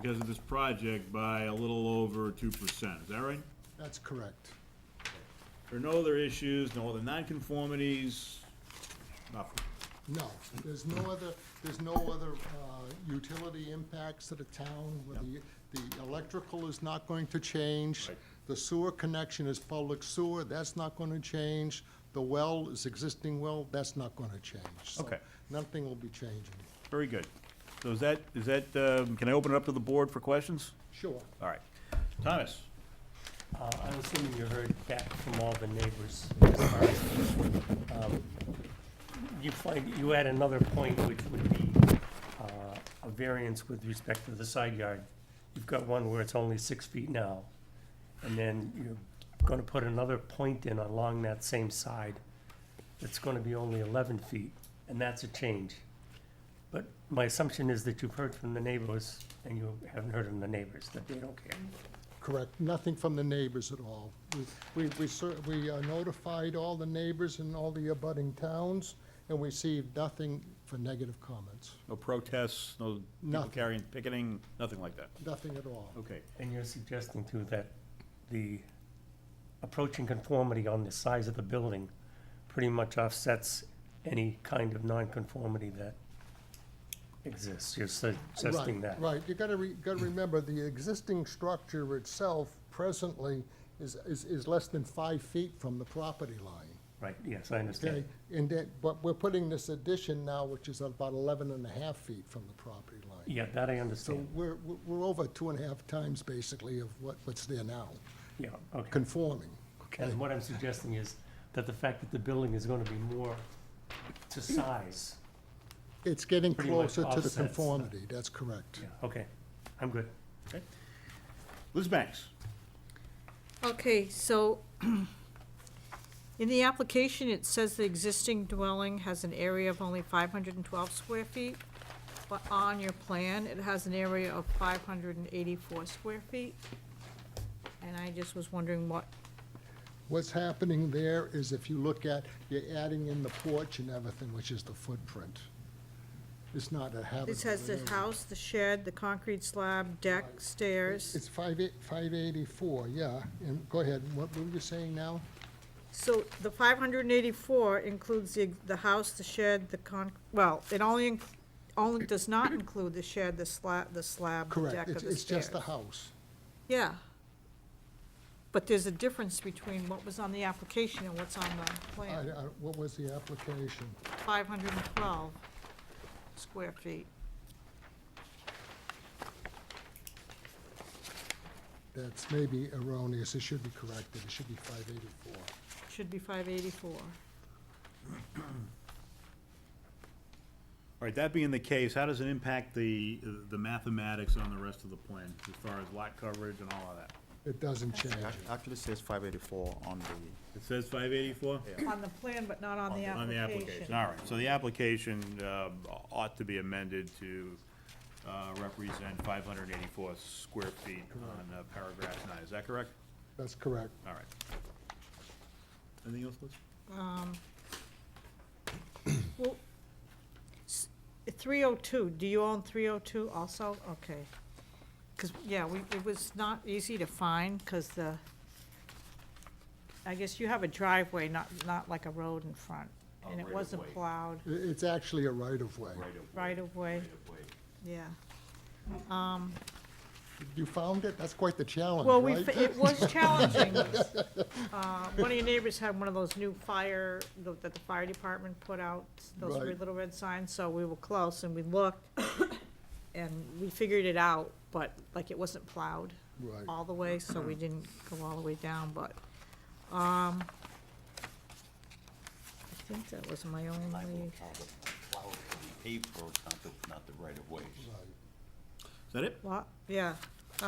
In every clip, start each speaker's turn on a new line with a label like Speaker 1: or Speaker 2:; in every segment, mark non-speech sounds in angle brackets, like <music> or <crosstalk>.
Speaker 1: because of this project by a little over two percent, is that right?
Speaker 2: That's correct.
Speaker 1: There are no other issues, no other nonconformities, nothing.
Speaker 2: No, there's no other, there's no other uh, utility impacts to the town. where The the electrical is not going to change.
Speaker 1: Right.
Speaker 2: The sewer connection is public sewer, that's not going to change. The well is existing well, that's not going to change. So
Speaker 1: Okay.
Speaker 2: Nothing will be changing.
Speaker 1: Very good. So is that, is that, um, can I open it up to the board for questions?
Speaker 2: Sure.
Speaker 1: All right. Thomas?
Speaker 3: Uh, I'm assuming you heard back from all the neighbors. as far as, um, You find, you had another point which would be uh, a variance with respect to the side yard. You've got one where it's only six feet now, and then you're gonna put another point in along that same side that's gonna be only eleven feet, and that's a change. But my assumption is that you've heard from the neighbors, and you haven't heard from the neighbors, that they don't care.
Speaker 2: Correct, nothing from the neighbors at all. We- We, we, cer- we uh, notified all the neighbors in all the abutting towns, and we received nothing for negative comments,
Speaker 1: No protests, no people
Speaker 2: Nothing.
Speaker 1: carrying, picketing, nothing like that?
Speaker 2: nothing at all.
Speaker 1: Okay.
Speaker 3: And you're suggesting too that the approaching conformity on the size of the building pretty much offsets any kind of nonconformity that exists. You're su- suggesting
Speaker 2: Right,
Speaker 3: that.
Speaker 2: Right, you gotta, re- gotta remember, the existing structure itself presently is, is, is less than five feet from the property line,
Speaker 3: Right, yes, I
Speaker 2: okay?
Speaker 3: understand.
Speaker 2: And that, but we're putting this addition now, which is about eleven and a half feet from the property line.
Speaker 3: Yeah, that I
Speaker 2: So
Speaker 3: understand.
Speaker 2: we're, we're- we're over two and a half times basically of what, what's there now,
Speaker 3: Yeah, okay.
Speaker 2: conforming.
Speaker 3: And what I'm suggesting is that the fact that the building is gonna be more to size.
Speaker 2: It's getting
Speaker 3: Pretty much
Speaker 2: closer to the
Speaker 3: offsets the-
Speaker 2: conformity, that's correct.
Speaker 3: Yeah, okay, I'm good.
Speaker 1: Okay. Liz Banks?
Speaker 4: Okay, so <clears throat> in the application, it says the existing dwelling has an area of only 512 square feet, but on your plan, it has an area of 584 square feet. And I just was wondering what,
Speaker 2: What's happening there is if you look at, you're adding in the porch and everything, which is the footprint. It's not a habitable.
Speaker 4: this has the
Speaker 2: area.
Speaker 4: house, the shed, the concrete slab, deck, stairs.
Speaker 2: It's five eight, five eighty-four, yeah, and go ahead, what were you saying now?
Speaker 4: So the 584 includes the, the house, the shed, the con, well, it only, inc- only does not include the shed, the slab, the slab, the
Speaker 2: Correct,
Speaker 4: deck, or the
Speaker 2: it's,
Speaker 4: stairs.
Speaker 2: it's just the house.
Speaker 4: Yeah. But there's a difference between what was on the application and what's on the
Speaker 2: I,
Speaker 4: plan.
Speaker 2: I, what was the application?
Speaker 4: 512 square feet.
Speaker 2: That's maybe erroneous, it should be corrected, it should be five eighty-four.
Speaker 4: Should be 584.
Speaker 1: All right, that being the case, how does it impact the, the mathematics on the rest of the plan, as far as lot coverage and all of that?
Speaker 2: It doesn't change
Speaker 5: Ac-
Speaker 2: it.
Speaker 5: Actually says five eighty-four on the,
Speaker 1: It says five eighty-four?
Speaker 4: On the plan, but not on the
Speaker 1: On the application, all right, so the application, uh, ought to be amended to, uh, represent five hundred eighty-four square feet on uh, paragraph nine, is that correct?
Speaker 2: That's correct.
Speaker 1: All right. Anything else, Liz?
Speaker 4: Well, s- 302, do you own 302 also? Okay. Because, yeah, we, it was not easy to find, because the, I guess you have a driveway, not, not like a road in front.
Speaker 1: A
Speaker 4: And it wasn't
Speaker 1: right-of-way.
Speaker 4: plowed,
Speaker 2: I- it's actually a right-of-way.
Speaker 1: of
Speaker 4: right of way,
Speaker 1: of way.
Speaker 4: yeah.
Speaker 2: You found it? That's quite the challenge,
Speaker 4: Well, we,
Speaker 2: right?
Speaker 4: f-
Speaker 2: <laughs>
Speaker 4: it was challenging. Uh, One of your neighbors had one of those new fire, tho- that the fire department put out, those
Speaker 2: Right.
Speaker 4: weird little red signs, so we were close and we looked. <coughs> And we figured it out, but like it wasn't plowed
Speaker 2: Right.
Speaker 4: all the way, so we didn't go all the way down, but, um, I think that was my
Speaker 6: I
Speaker 4: only,
Speaker 6: will count the plowed and paved roads, not the, not the right of ways.
Speaker 1: Is that it?
Speaker 4: what, yeah,
Speaker 6: The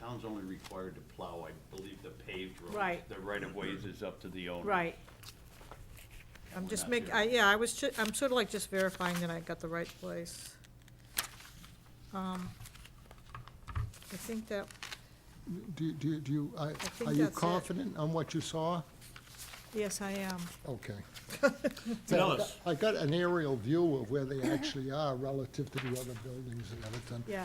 Speaker 6: town's only required to plow, I believe, the paved roads.
Speaker 4: Right.
Speaker 6: The right of ways is up to the owner.
Speaker 4: right. I'm
Speaker 6: We're
Speaker 4: just
Speaker 6: not
Speaker 4: making,
Speaker 6: there.
Speaker 4: I, yeah, I was, ju- I'm sort of like just verifying that I got the right place. Um, I think that,
Speaker 2: Do, do, do you, I,
Speaker 4: think
Speaker 2: are you
Speaker 4: that's it.
Speaker 2: confident on what you saw?
Speaker 4: yes, I am.
Speaker 2: Okay.
Speaker 1: Tell us.
Speaker 2: I got an aerial view of where they actually are relative to the other buildings and everything.
Speaker 4: Yeah.